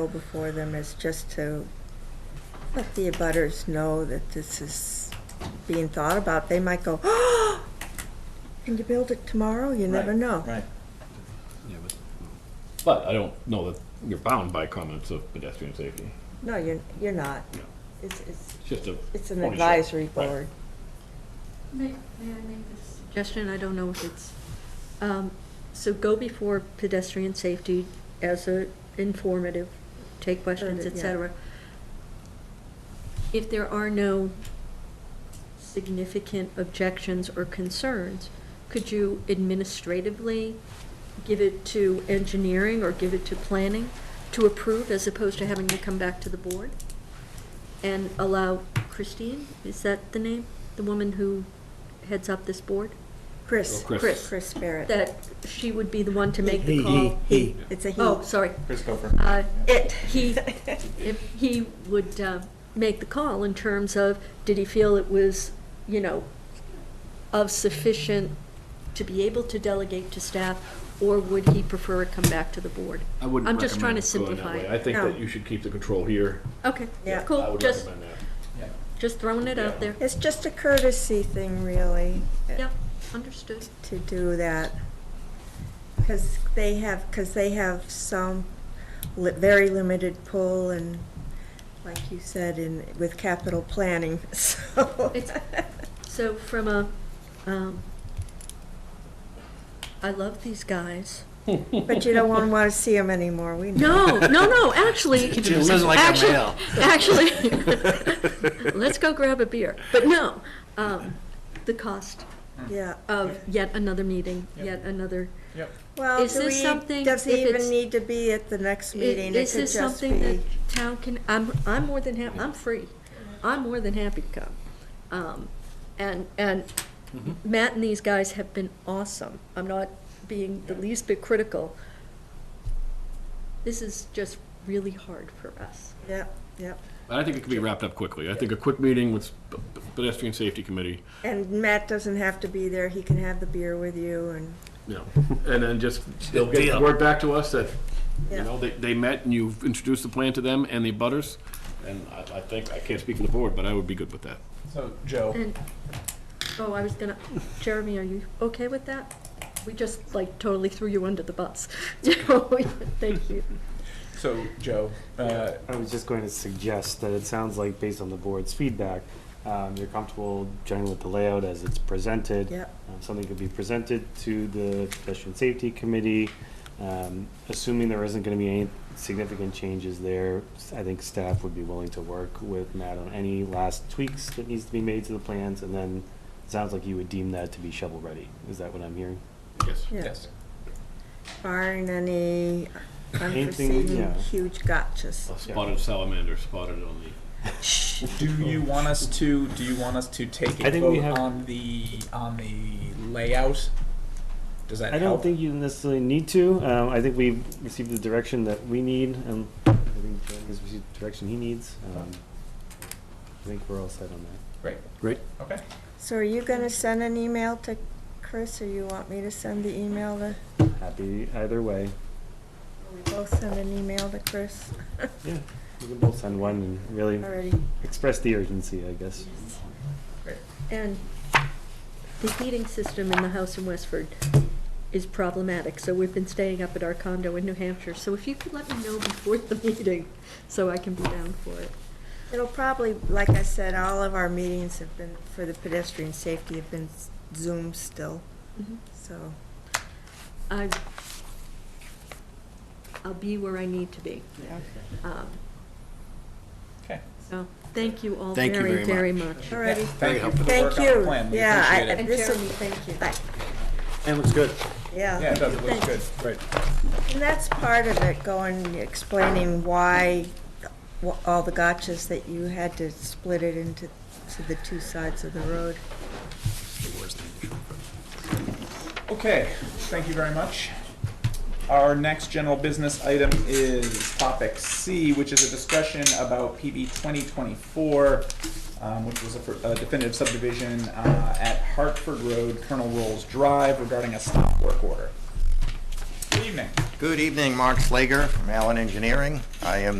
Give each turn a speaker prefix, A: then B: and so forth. A: go before them is just to let the abutters know that this is being thought about. They might go, oh, can you build it tomorrow? You never
B: Right,
A: know.
B: Right.
C: Yeah, but, but I don't know that you're bound by comments of pedestrian safety.
A: No, you're, you're not.
C: No.
A: It's, it's,
C: It's just a.
A: it's an
C: Only so,
A: advisory
C: right.
A: board.
D: May, may I make a suggestion? I don't know if it's, um, so go before pedestrian safety as a informative, take questions,
A: Sure,
D: et
A: yeah.
D: cetera. If there are no significant objections or concerns, could you administratively give it to engineering or give it to planning to approve as opposed to having to come back to the board? and allow Christine, is that the name? The woman who heads up this board?
A: Chris,
C: Oh, Chris.
A: Chris, Chris Barrett.
D: That she would be the one to make the
B: He-
D: call?
B: He.
A: It's a he.
D: Oh, sorry.
B: Chris Gopher.
D: Uh,
A: It.
D: He, if he would uh, make the call in terms of, did he feel it was, you know, of sufficient to be able to delegate to staff, or would he prefer it come back to the board?
C: I wouldn't
D: I'm just trying
C: recommend
D: to
C: going that
D: simplify
C: way.
D: it.
C: I think
A: No.
C: that you should keep the control here.
D: Okay,
A: Yeah.
C: I
D: cool,
C: would
D: just,
C: recommend that.
D: just throwing it out there.
A: It's just a courtesy thing, really.
D: Yep, understood.
A: to do that. Because they have, because they have some li- very limited pull and, like you said, in, with capital planning, so.
D: It's- So from a, um, I love these guys.
A: But you don't want, want to see them anymore, we know.
D: No, no, no, actually.
E: It sounds like a
D: actually-
E: male.
D: Actually, let's go grab a beer. But no, um, the cost
A: Yeah,
D: of yet another meeting, yet another.
B: Yep.
A: well,
D: Is
A: do
D: this
A: we-
D: something-
A: does
D: if
A: it even
D: it's-
A: need to be at the next meeting? It
D: Is
A: could
D: this
A: just
D: something that
A: be,
D: town can, I'm, I'm more than hap, I'm free. I'm more than happy to come. Um, and, and
C: Mm-hmm.
D: Matt and these guys have been awesome. I'm not being the least bit critical. This is just really hard for us.
A: yep, yep.
C: But I think it could be wrapped up quickly. I think a quick meeting with p- p- pedestrian safety committee,
A: And Matt doesn't have to be there, he can have the beer with you and,
C: you know, and then just, they'll get the
E: deal.
C: word back to us that, you
A: Yeah.
C: know, they, they met and you've introduced the plan to them and the butters. And I, I think, I can't speak for the board, but I would be good with that.
B: So, Joe.
D: And, oh, I was gonna, Jeremy, are you okay with that? We just like totally threw you under the bus. You know, Thank you.
B: So, Joe. Uh,
F: I was just going to suggest that it sounds like, based on the board's feedback, um, you're comfortable generally with the layout as it's presented.
A: yep,
F: Um, Something could be presented to the pedestrian safety committee, um, assuming there isn't gonna be any significant changes there. s- I think staff would be willing to work with Matt on any last tweaks that needs to be made to the plans, and then it sounds like you would deem that to be shovel-ready. Is that what I'm hearing?
C: Yes.
A: yeah.
B: Yes.
A: Barring any
F: Anything,
A: unforeseen
F: yeah.
A: huge gotchas.
C: A Spotted salamander spotted on the
B: Do you want us to? Do you want us to take a
F: I think
B: vote
F: we have-
B: on the on the layout? Does that
F: I
B: help?
F: don't think you necessarily need to. Um, I think we've received the direction that we need, and I think Jeremy has received the direction he needs. Um, I think we're all set on that.
B: okay.
A: So are you gonna send an email to Chris, or you want me to send the email to,
F: Happy either way.
A: we both send an email to Chris
F: Yeah, we can both send one and really
A: already?
F: express the urgency, I guess.
D: And the heating system in the house in Westford is problematic, so we've been staying up at our condo in New Hampshire. So if you could let me know before the meeting, so I can be down for it.
A: It'll probably, like I said, all of our meetings have been, for the pedestrian safety have been Zoom still,
D: Mm-hmm.
A: so.
D: I, I'll be where I need to be. Um,
B: Okay.
D: So, thank you all
E: Thank you
D: very,
E: very
D: very much.
A: Alrighty.
B: Yeah, thank
E: Very
B: you. For the
A: Thank
B: work on the
A: you.
B: plan. We
A: Yeah, I-
B: appreciate
A: I-
B: it.
D: And
A: This will-
D: Jeremy, thank you.
A: I-
E: And it looks good.
B: Yeah,
D: Uh,
A: Yeah,
B: it does. It looks good. Right.
A: and that's part of it, going, explaining why, wh- all the gotchas that you had to split it into, to the two sides of the road.
B: Okay, thank you very much. Our next general business item is topic C, which is a discussion about PB 2024, um, which was a fir- a definitive subdivision uh, at Hartford Road, Colonel Rolls Drive regarding a stop work order. Good evening.
G: Good evening, Mark Slager from Allen Engineering. I am